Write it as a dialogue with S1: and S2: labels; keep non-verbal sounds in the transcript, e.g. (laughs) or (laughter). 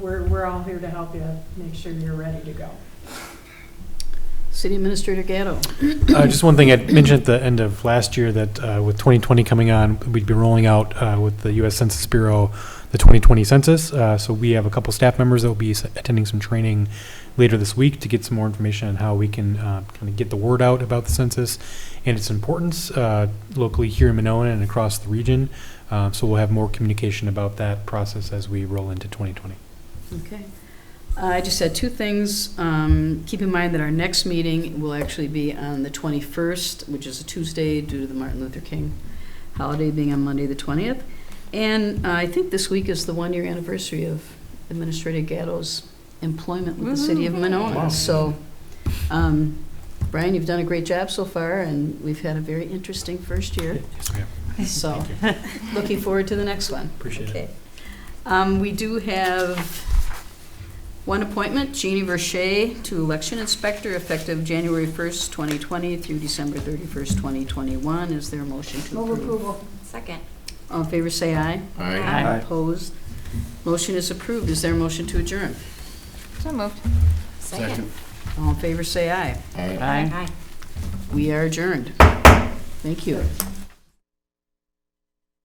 S1: We're, we're all here to help you make sure you're ready to go.
S2: City Administrator Gatto.
S3: Uh, Just one thing, I mentioned at the end of last year that uh, with 2020 coming on, we'd be rolling out uh, with the U.S. Census Bureau, the 2020 census. Uh, So we have a couple staff members that will be s- attending some training later this week to get some more information on how we can kind of get the word out about the census and its importance uh, locally here in Manona and across the region. Uh, So we'll have more communication about that process as we roll into 2020.
S2: Okay. Uh, I just had two things. Um, Keep in mind that our next meeting will actually be on the 21st, which is a Tuesday due to the Martin Luther King holiday being on Monday, the 20th. And uh, I think this week is the one-year anniversary of Administrator Gatto's employment with the city of
S3: Wow.
S2: Monona. So, um, Brian, you've done a great job so far, and we've had a very interesting first
S3: (laughs)
S2: year.
S3: Yes, ma'am.
S2: So,
S3: Thank you.
S2: looking forward to the next one.
S3: Appreciate it.
S2: Okay. Um, We do have one appointment, Jeannie Verche, to election inspector effective January 1st, 2020 through December 31st, 2021. Is there a motion to
S4: Move
S2: approve?
S4: approval. Second.
S2: All in favor, say aye.
S5: Aye.
S4: Aye.
S2: Opposed? Motion is approved. Is there a motion to adjourn?
S4: So moved.
S5: Second.
S2: All in favor, say aye.
S5: Aye.
S4: Aye.
S2: We are adjourned. Thank you.